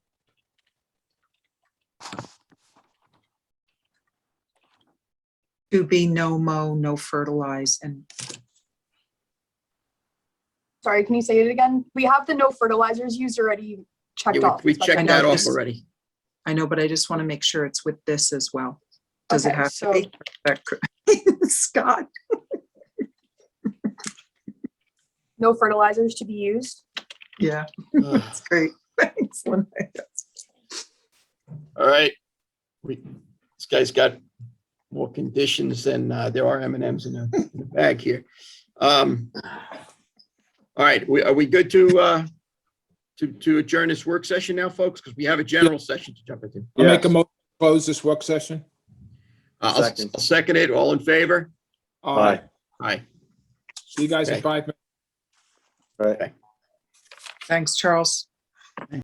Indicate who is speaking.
Speaker 1: to be no mow, no fertilize, and
Speaker 2: Sorry, can you say it again? We have the no fertilizers used already checked
Speaker 3: Yeah,
Speaker 2: off.
Speaker 3: We we
Speaker 2: It's like-
Speaker 3: checked
Speaker 1: I
Speaker 3: that
Speaker 1: know
Speaker 3: off
Speaker 1: this-
Speaker 3: already.
Speaker 1: I know, but I just want to make sure it's with this as well. Does it
Speaker 2: Okay,
Speaker 1: have to
Speaker 2: so-
Speaker 1: be? that cr- Scott,
Speaker 2: No fertilizers to be used.
Speaker 1: yeah,
Speaker 3: Ugh.
Speaker 1: that's great. Thanks, Lynn.
Speaker 3: All right. We, this guy's got more conditions than, uh, there are M and Ms in the in the bag here. Um, all right, we, are we good to, uh, to, to adjourn this work session now, folks? Because we have a general session to jump into.
Speaker 4: I'll make a
Speaker 5: Yes.
Speaker 4: motion, to close this work session.
Speaker 3: Uh, I'll,
Speaker 5: Second.
Speaker 3: I'll second it. All in favor?
Speaker 4: Uh,
Speaker 5: Aye.
Speaker 3: Aye.
Speaker 4: See you guys in
Speaker 3: Okay.
Speaker 4: five minutes.
Speaker 5: Right.
Speaker 1: Thanks, Charles.